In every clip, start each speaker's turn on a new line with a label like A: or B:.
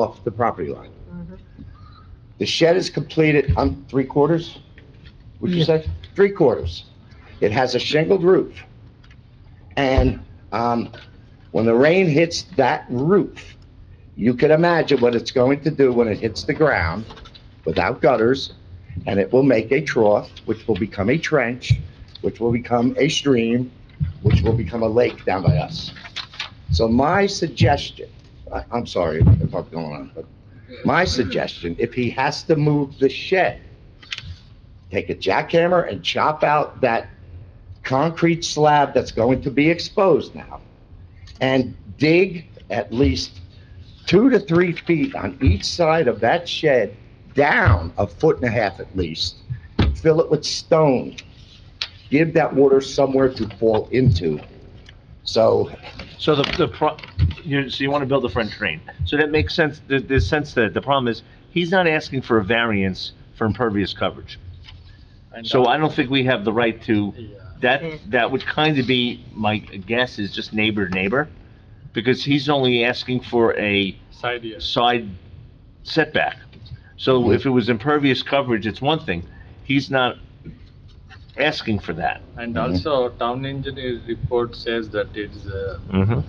A: off the property line. The shed is completed, I'm three quarters, would you
B: Yeah.
A: say? Three quarters. It has a shingled roof. And, um, when the rain hits that roof, you can imagine what it's going to do when it hits the ground without gutters, and it will make a trough, which will become a trench, which will become a stream, which will become a lake down by us. So my suggestion, I, I'm sorry if I'm going on, but my suggestion, if he has to move the shed, take a jackhammer and chop out that concrete slab that's going to be exposed now, and dig at least two to three feet on each side of that shed, down a foot and a half at least, fill it with stone, give that water somewhere to fall into. So
C: So the, the, pro- you, so you want to build a French drain. So that makes sense, there, there's sense that the problem is, he's not asking for a variance for impervious coverage. So I don't think we have the right to, that, that would kind of be, my guess is just neighbor to neighbor, because he's only asking for a
D: Side yard.
C: side setback. So if it was impervious coverage, it's one thing, he's not asking for that.
D: And
A: Mhm.
D: also, town engineer's report says that it's, uh,
C: Mm-hmm.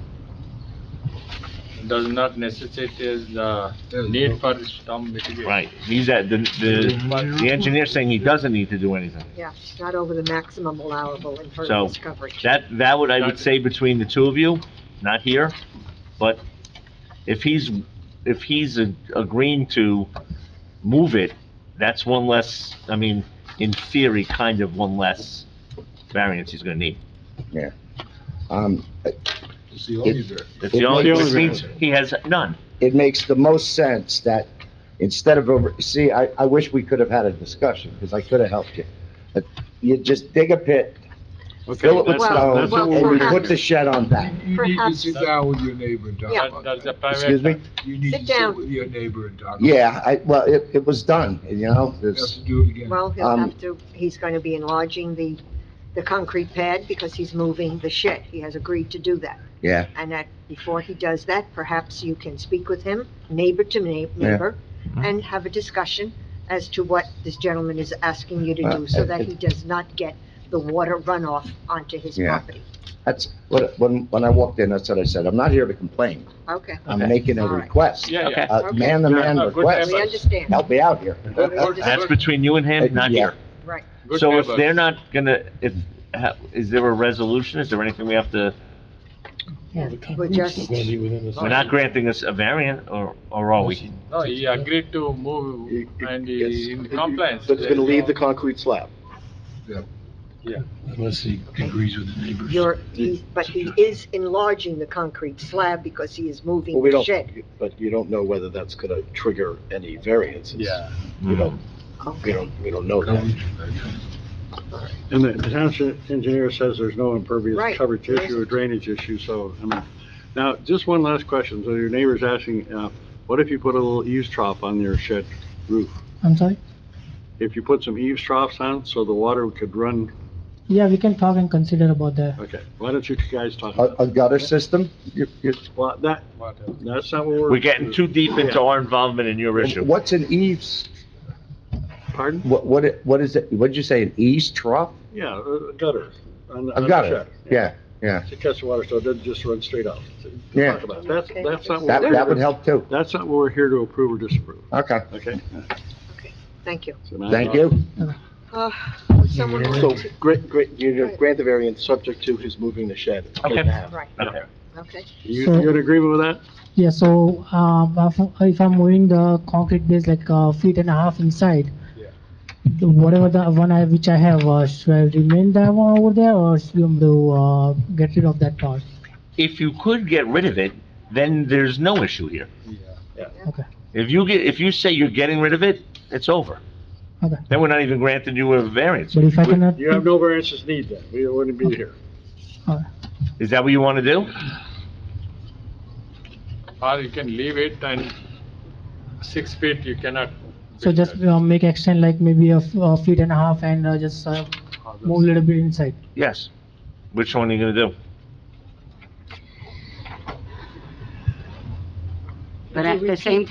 D: does not necessitate is the need for storm mitigation.
C: Right, he's at, the, the, the engineer's saying he doesn't need to do anything.
E: Yeah, not over the maximum allowable impervious coverage.
C: That, that would, I would say between the two of you, not here, but if he's, if he's a- agreeing to move it, that's one less, I mean, in theory, kind of one less variance he's gonna need.
A: Um,
F: It's the only dirt.
C: That's the only,
A: The only
C: which means he has none.
A: it makes the most sense that instead of over, see, I, I wish we could have had a discussion, because I could have helped you. But You just dig a pit, fill it with
E: that's-
A: stone,
E: that's what we're
A: and you put
E: having.
A: the shed on that.
F: You need to
E: Perhaps-
F: sit down with your neighbor and talk
E: Yeah.
D: That,
F: about
D: that's a
F: that.
D: private.
A: Excuse me?
F: You need
E: Sit
F: to sit
E: down.
F: with your neighbor and talk. about it.
A: Yeah, I, well, it, it was done, you know,
F: You have
A: there's,
F: to do it again.
E: Well, he'll
A: Um,
E: have to, he's going to be enlarging the, the concrete pad because he's moving the shed. He has agreed to do that.
A: yeah.
E: And that, before he does that, perhaps you can speak with him, neighbor to neigh-
A: Yeah.
E: neighbor, and have a discussion as to what this gentleman is asking you to
A: Uh,
E: do so that
A: it-
E: he does not get the water runoff onto his
A: Yeah.
E: property.
A: That's, what when, when I walked in, that's what I said, I'm not here to complain,
E: Okay,
A: I'm
C: Okay.
A: making a
E: All right.
A: request. Uh,
D: Yeah, yeah.
A: A man-to-man
D: Yeah, good
A: request,
E: we understand,
A: help me out here.
D: Good- good-
C: That's between you and him, not
A: Yeah.
C: here.
E: right.
D: good
C: So if
D: neighbor.
C: they're not gonna, if, ha- is there a resolution? Is there anything we have to,
E: We're just,
C: we're not granting us a variant, or, or are we?
D: No, he agreed to move and he in compliance.
G: But it's gonna leave the concrete slab.
F: Unless he agrees with the neighbors.
E: you're, he- but he is enlarging the concrete slab because he is moving
G: Well, we
E: the
G: don't,
E: shed.
G: but you don't know whether that's gonna trigger any variances.
D: Yeah.
G: You don't, we
E: Okay.
G: don't, we don't know that.
H: And the the township engineer says there's no
E: Right.
H: impervious coverage issue or drainage issue, so, I mean, now, just one last question, so your neighbor's asking, uh, what if you put a little eaves trough on your shed roof?
B: I'm sorry?
H: If you put some eaves troughs on, so the water could run,
B: Yeah, we can talk and consider about that.
H: okay, why don't you guys talk
A: A,
H: about
A: a gutter system, you, you,
H: Well, that,
D: Whatever.
H: that's not what we're.
C: We're getting too deep into our involvement in your issue.
A: what's an eaves,
H: Pardon?
A: what, what, it- what is it, what'd you say, an eaves trough?
H: Yeah, a a gutter. on- on
A: A
H: the
A: gutter,
H: shed.
A: yeah,
H: To catch the water, so it doesn't just run straight out. To- to
A: Yeah.
H: talk about. That's,
E: Okay.
H: that's not. what
A: that,
H: we're-
A: that would help too,
H: That's not what we're here to approve or disapprove,
A: okay,
H: okay?
E: Thank you.
H: So now-
A: thank you.
E: Uh, would someone
G: So,
E: like to-
G: grant, grant, you know, grant the variance subject to his moving the shed.
C: Okay.
G: And a half.
E: Right,
C: Okay.
E: okay.
H: You,
B: So-
H: you in agreement with that?
B: Yeah, so, um, if- if I'm moving the concrete base like a feet and a half inside, the- whatever the one I, which I have, uh, should I remain that one over there or should I do, uh, get rid of that part?
C: If you could get rid of it, then there's no issue here.
B: Okay.
C: If you get, if you say you're getting rid of it, it's over.
B: Okay.
C: Then we're not even granting you a variance.
B: But if I cannot,
H: You have no variances need then, we wouldn't be here.
C: Is that what you want to do?
D: Or you can leave it and six feet you cannot.
B: so just uh, make extend like maybe a f- a feet and a half and uh, just uh, move a little bit inside.
C: Yes. Which one are you gonna do?
I: But at the same